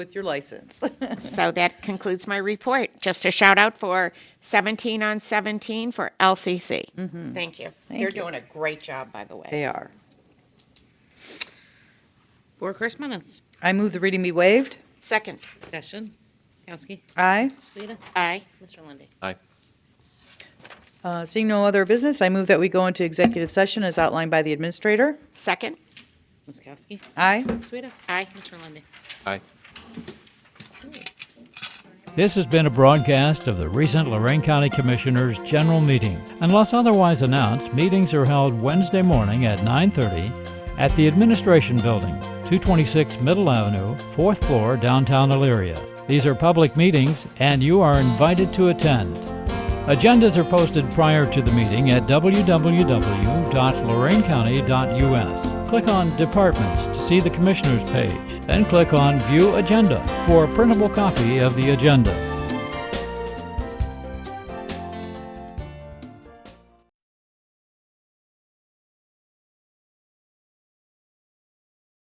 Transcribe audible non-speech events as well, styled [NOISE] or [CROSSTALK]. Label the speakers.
Speaker 1: with your license. [LAUGHS]
Speaker 2: So that concludes my report. Just a shout out for 17 on 17 for LCC. Thank you. They're
Speaker 1: Mm-hmm. you.
Speaker 2: doing a great job, by the way.
Speaker 1: They are.
Speaker 3: Board correspondence.
Speaker 1: I move the reading be waived.
Speaker 2: Second,
Speaker 3: Discussion. Skowski.
Speaker 1: Aye.
Speaker 3: Sueda.
Speaker 2: aye.
Speaker 3: Mr. Lundy.
Speaker 4: Aye.
Speaker 1: Uh, Seeing no other business, I move that we go into executive session as outlined by the administrator.
Speaker 2: Second,
Speaker 3: Ms. Kowski.
Speaker 1: Aye.
Speaker 3: Sueda.
Speaker 2: Aye.
Speaker 3: Mr. Lundy.
Speaker 4: Aye.
Speaker 5: This has been a broadcast of the recent Lorraine County Commissioners' General Meeting. Unless otherwise announced, meetings are held Wednesday morning at 9:30 at the Administration Building, 226 Middle Avenue, 4th floor, downtown Elyria. These are public meetings and you are invited to attend. Agendas are posted prior to the meeting at www.lorainecounty.us. Click on Departments to see the Commissioners page, then click on View Agenda for a printable copy of the agenda.